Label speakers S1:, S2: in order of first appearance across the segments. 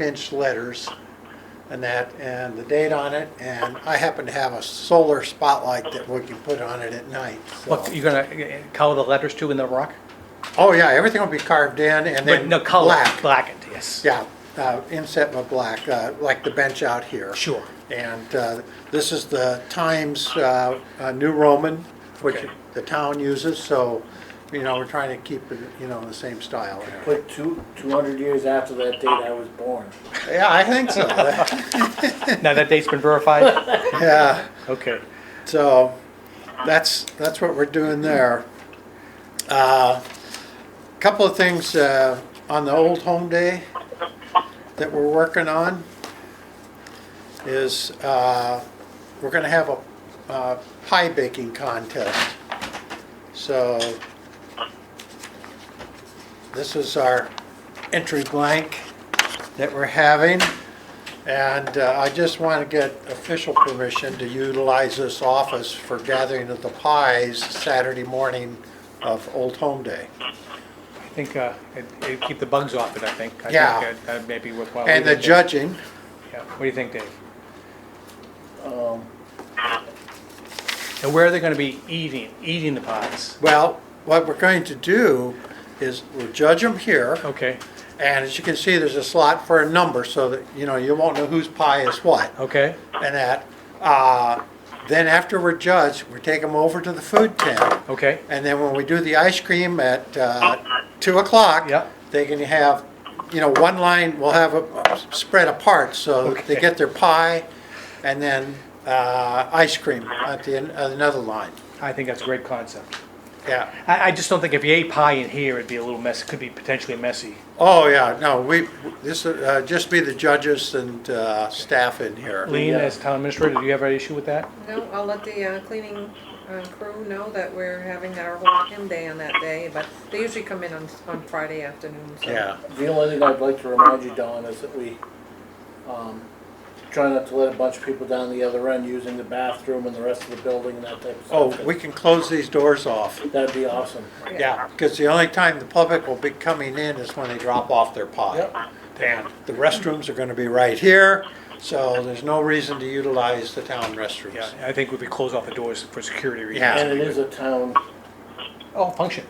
S1: inch letters and that, and the date on it, and I happen to have a solar spotlight that we can put on it at night, so.
S2: What, you're gonna uh, color the letters too in the rock?
S1: Oh, yeah, everything will be carved in and
S2: But
S1: then
S2: no, color,
S1: black.
S2: blackened, yes.
S1: Yeah, uh, inset with black, uh, like the bench out here.
S2: Sure.
S1: And uh, this is the Times uh, uh, New Roman, which
S2: Okay.
S1: the town uses, so, you know, we're trying to keep it, you know, in the same style.
S3: Put two, two hundred years after that date I was born.
S1: Yeah, I think so.
S2: Now that date's been verified?
S1: Yeah.
S2: Okay.
S1: So that's, that's what we're doing there. Uh, Couple of things uh, on the Old Home Day that we're working on is uh, we're going to have a uh, pie baking contest. So this is our entry blank that we're having. And uh, I just want to get official permission to utilize this office for gathering of the pies Saturday morning of Old Home Day.
S2: I think, uh, it- it'd keep the bugs off it, I think. I think
S1: Yeah.
S2: that- That may be worthwhile. What
S1: And
S2: do you
S1: the
S2: think,
S1: judging,
S2: Dave? Yeah. What do you think, Dave?
S3: Um,
S2: And where are they gonna be eating, eating the pies?
S1: well, what we're going to do is we'll judge them here.
S2: Okay,
S1: And as you can see, there's a slot for a number so that, you know, you won't know whose pie is what
S2: okay,
S1: and that. Uh, Then after we're judged, we take them over to the food tent.
S2: okay.
S1: And then when we do the ice cream at uh, two o'clock,
S2: Yep.
S1: they can have, you know, one line will have a spread apart, so they
S2: Okay.
S1: get their pie and then uh, ice cream at the end, at another line.
S2: I think that's a great concept.
S1: Yeah.
S2: I, I just don't think if you ate pie in here, it'd be a little messy, could be potentially messy.
S1: Oh yeah. No, we this uh, just be the judges and uh, staff in here.
S2: Lean,
S3: Yeah.
S2: as town administrator, do you have an issue with that?
S4: No, I'll let the uh, cleaning uh, crew know that we're having our walk in day on that day, but they usually come in on, on Friday afternoon, so.
S1: Yeah.
S3: the only thing I'd like to remind you, Don, is that we, um, try not to let a bunch of people down the other end using the bathroom and the rest of the building and that type of
S1: Oh,
S3: stuff.
S1: we can close these doors off.
S3: That'd be awesome.
S1: Yeah, because the only time the public will be coming in is when they drop off their
S3: Yep.
S1: pie. And the restrooms are gonna be right here, so there's no reason to utilize the town
S2: Yeah,
S1: restrooms.
S2: I think we'd be close off the doors for security reasons.
S1: Yeah.
S3: And it is a town,
S2: Oh, function,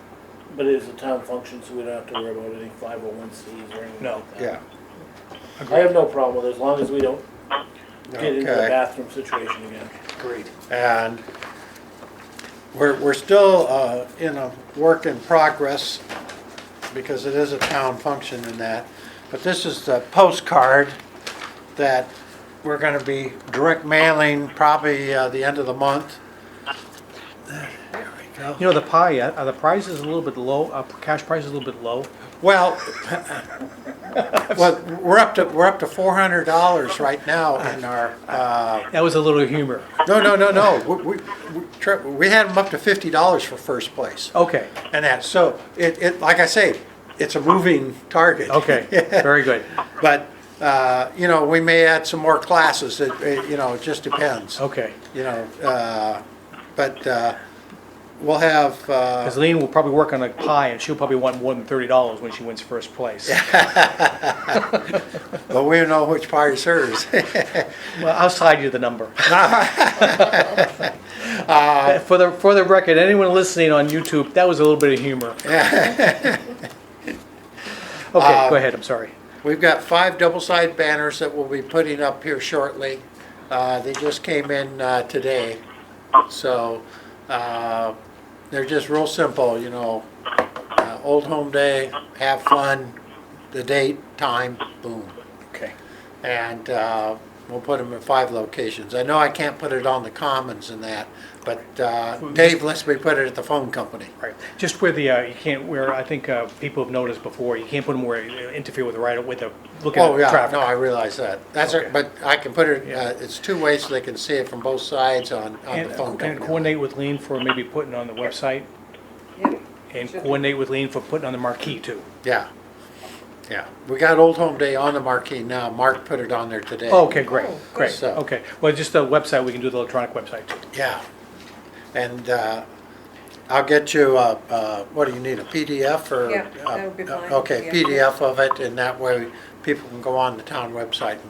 S3: but it is a town function, so we don't have to worry about any five oh one Cs or anything
S2: No.
S3: like that.
S1: Yeah,
S3: I have no problem with it, as long as we don't get into the
S1: Okay.
S3: bathroom situation again.
S2: agreed.
S1: and we're, we're still uh, in a work in progress because it is a town function in that. But this is the postcard that we're gonna be direct mailing probably uh, the end of the month. There we go.
S2: You know, the pie, uh, are the prices a little bit low, uh, cash price is a little bit low?
S1: Well, well, we're up to, we're up to four hundred dollars right now in our, uh,
S2: That was a little humor.
S1: no, no, no, no. We, we, we tri- we had them up to fifty dollars for first place
S2: Okay,
S1: and that, so it, it, like I say, it's a moving target.
S2: okay, very good.
S1: But, uh, you know, we may add some more classes. It, it, you know, it just depends.
S2: Okay,
S1: You know, uh, but, uh, we'll have, uh,
S2: because Lean will probably work on a pie, and she'll probably want more than thirty dollars when she wins first place.
S1: but we don't know which party serves.
S2: Well, I'll slide you the number. For the, for the record, anyone listening on YouTube, that was a little bit of humor. Okay, go ahead, I'm sorry.
S1: We've got five double-sided banners that we'll be putting up here shortly. Uh, They just came in uh, today, so uh, they're just real simple, you know. Uh, Old Home Day, have fun, the date, time, boom.
S2: Okay.
S1: And uh, we'll put them in five locations. I know I can't put it on the Commons and that, but uh, Dave lets me put it at the phone company.
S2: Right, just where the, uh, you can't, where I think uh, people have noticed before, you can't put them where you interfere with the right, with the, looking at
S1: Oh,
S2: the
S1: yeah, no,
S2: traffic.
S1: I realize that. That's, a-
S2: Okay.
S1: but I can put it,
S2: Yeah.
S1: uh, it's two ways so they can see it from both sides on, on the
S2: And
S1: phone
S2: and
S1: company.
S2: coordinate with Lean for maybe putting on the website,
S4: Yeah.
S2: and
S4: Should be.
S2: coordinate with Lean for putting on the marquee too.
S1: Yeah, yeah. We got Old Home Day on the marquee now. Mark put it on there today.
S2: Okay, great,
S4: Oh, good.
S2: great,
S1: So-
S2: okay. Well, just the website, we can do the electronic website too.
S1: Yeah. And uh, I'll get you, uh, uh, what do you need, a PDF or?
S4: Yeah,
S1: uh,
S4: that would be fine,
S1: Okay,
S4: yeah.
S1: PDF of it, and that way people can go on the town website and